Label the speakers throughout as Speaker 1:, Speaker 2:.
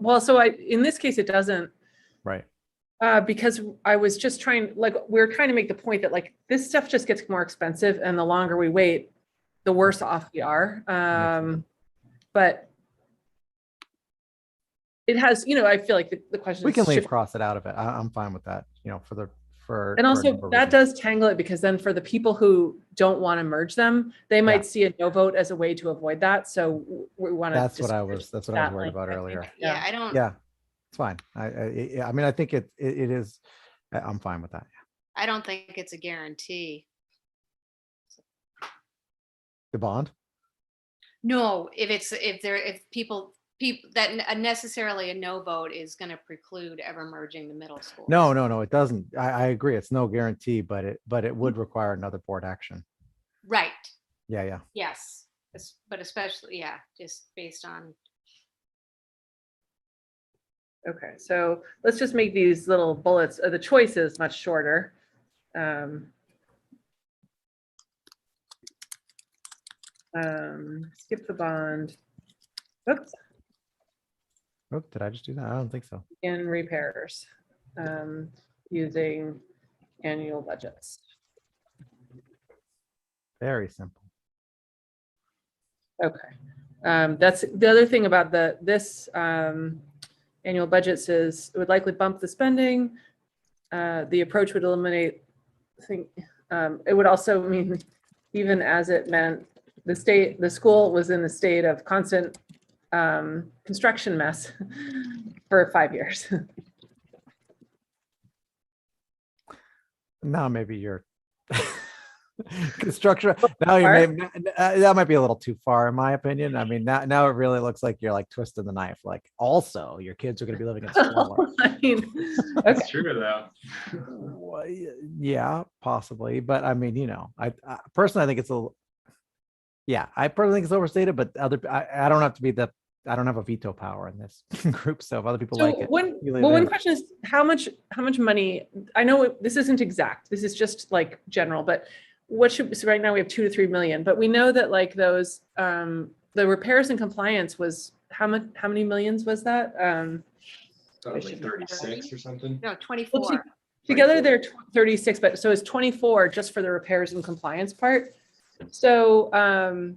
Speaker 1: well, so I, in this case, it doesn't,
Speaker 2: Right.
Speaker 1: uh, because I was just trying, like, we we're trying to make the point that like, this stuff just gets more expensive and the longer we wait, the worse off we are. Um, but it has, you know, I feel like the, the question.
Speaker 2: We
Speaker 1: is
Speaker 2: can leave
Speaker 1: shift-
Speaker 2: cross it out of it. I, I'm fine with that, you know, for the, for.
Speaker 1: And
Speaker 2: for a
Speaker 1: also
Speaker 2: number of
Speaker 1: that
Speaker 2: reasons.
Speaker 1: does tangle it because then for the people who don't want to merge them, they
Speaker 2: Yeah.
Speaker 1: might see a no vote as a way to avoid that. So w- we want to.
Speaker 2: That's what I was, that's what I was worried about earlier.
Speaker 1: Yeah.
Speaker 3: Yeah, I don't,
Speaker 2: Yeah, it's fine. I, I, I- yeah, I mean, I think it, it it is, I- I'm fine with that.
Speaker 3: I don't think it's a guarantee.
Speaker 2: The bond?
Speaker 3: No, if it's, if there, if people, people, that n- uh, necessarily a no vote is gonna preclude ever merging the middle school.
Speaker 2: No, no, no, it doesn't. I, I agree. It's no guarantee, but it, but it would require another board action.
Speaker 3: Right,
Speaker 2: Yeah, yeah.
Speaker 3: yes, Es- but especially, yeah, just based on,
Speaker 1: Okay, so let's just make these little bullets, uh, the choices much shorter. Um, um, Skip the bond. Oops,
Speaker 2: Oh, did I just do that? I don't think so.
Speaker 1: in repairs, um, using annual budgets.
Speaker 2: Very simple.
Speaker 1: Okay, um, that's the other thing about the, this, um, annual budget says it would likely bump the spending. Uh, the approach would eliminate, I think, um, it would also mean, even as it meant, the state, the school was in a state of constant, um, construction mess for five years.
Speaker 2: Now maybe you're construction. Now you may, n- n- uh, that might be a little too far, in my opinion. I mean, now, now it really looks like you're like twisting the knife. Like also your kids are going to be living in smaller.
Speaker 1: I mean, okay,
Speaker 4: That's true though.
Speaker 2: Wha- y- Yeah, possibly. But I mean, you know, I, I personally, I think it's a, l- yeah, I personally think it's overstated, but other, I, I don't have to be the, I don't have a veto power in this group. So if other people like
Speaker 1: So
Speaker 2: it,
Speaker 1: one,
Speaker 2: you leave
Speaker 1: well,
Speaker 2: it
Speaker 1: one
Speaker 2: in.
Speaker 1: question is how much, how much money, I know it- this isn't exact, this is just like general, but what should, so right now we have two to three million, but we know that like those, um, the repairs and compliance was, how much, how many millions was that? Um,
Speaker 4: That was like thirty-six or something.
Speaker 3: no, twenty-four.
Speaker 1: together they're tw- thirty-six, but so it's twenty-four just for the repairs and compliance part. So, um,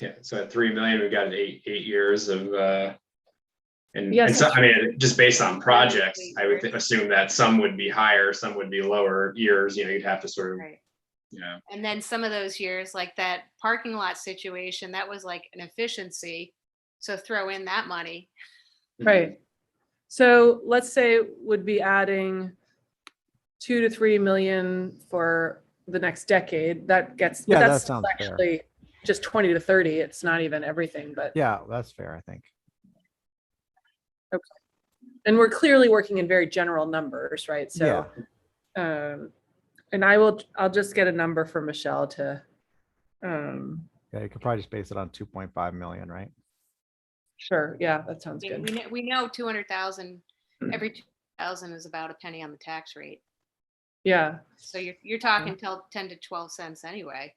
Speaker 4: Yeah, so at three million, we've got eight, eight years of, uh, and,
Speaker 1: Yes.
Speaker 4: and so, I mean, just based on projects, I would thi- assume that some would be higher, some would be lower years, you know, you'd have to sort of,
Speaker 3: Right.
Speaker 4: you know.
Speaker 3: And then some of those years, like that parking lot situation, that was like an efficiency. So throw in that money.
Speaker 2: Mm-hmm.
Speaker 1: Right. So let's say would be adding two to three million for the next decade. That gets, but
Speaker 2: Yeah, that
Speaker 1: that's still
Speaker 2: sounds fair.
Speaker 1: actually just twenty to thirty. It's not even everything, but,
Speaker 2: yeah, that's fair. I think.
Speaker 1: and we're clearly working in very general numbers, right? So, um, and I will, I'll just get a number for Michelle to, um,
Speaker 2: Yeah. You could probably just base it on 2.5 million, right?
Speaker 1: sure, yeah, that sounds
Speaker 3: I mean,
Speaker 1: good.
Speaker 3: We know, we know two hundred thousand,
Speaker 2: Mm.
Speaker 3: every two thousand is about a penny on the tax rate.
Speaker 1: Yeah,
Speaker 3: So you're, you're talking till ten to twelve cents anyway.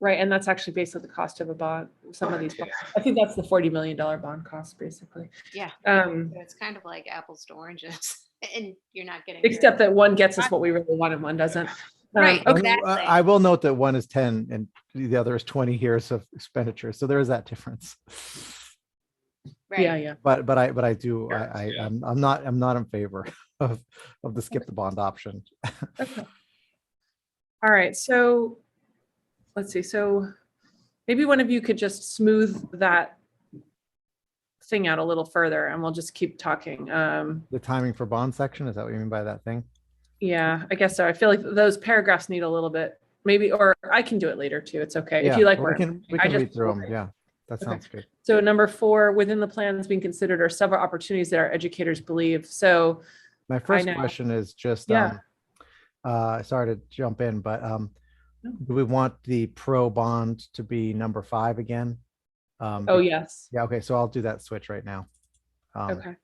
Speaker 1: right. And that's actually based on the cost of a bond, some of these.
Speaker 4: Yeah.
Speaker 1: bonds. I think that's the forty million dollar bond cost, basically.
Speaker 3: Yeah.
Speaker 1: Um,
Speaker 3: So It's kind of like apples to oranges and you're not getting. very-
Speaker 1: Except that one gets us what we really want and one doesn't. Um,
Speaker 3: Right.
Speaker 1: Okay,
Speaker 2: Well, I-
Speaker 3: Exactly.
Speaker 2: I will note that one is ten and the other is twenty years of expenditure, so there is that difference.
Speaker 3: Right.
Speaker 1: yeah, yeah.
Speaker 2: But, but I, but I do, I, I,
Speaker 4: Yeah.
Speaker 2: I'm, I'm not, I'm not in favor of, of the skip the bond option.
Speaker 1: All right, so, let's see, so maybe one of you could just smooth that thing out a little further and we'll just keep talking. Um,
Speaker 2: The timing for bond section, is that what you mean by that thing?
Speaker 1: yeah, I guess so. I feel like those paragraphs need a little bit, maybe, or I can do it later too. It's okay. Uh, If
Speaker 2: Yeah,
Speaker 1: you like,
Speaker 2: well,
Speaker 1: where
Speaker 2: We
Speaker 1: I'm-
Speaker 2: can, we
Speaker 1: I
Speaker 2: can
Speaker 1: just-
Speaker 2: read through them, yeah, that
Speaker 1: Okay.
Speaker 2: sounds good.
Speaker 1: so number four, within the plans being considered are several opportunities that our educators believe. So,
Speaker 2: My first
Speaker 1: know.
Speaker 2: question is just,
Speaker 1: Yeah.
Speaker 2: um, uh, sorry to jump in, but, um,
Speaker 1: No.
Speaker 2: do we want the pro bond to be number five again? Um,
Speaker 1: oh,
Speaker 2: be-
Speaker 1: yes,
Speaker 2: Yeah, okay, so I'll do that switch right now. Um,
Speaker 1: Okay.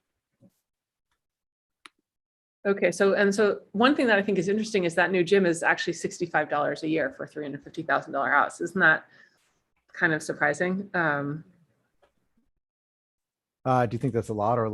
Speaker 1: Okay, so, and so one thing that I think is interesting is that new gym is actually sixty-five dollars a year for a three hundred fifty thousand dollar house. Isn't that kind of surprising? Um,
Speaker 2: Uh, do you think that's a lot or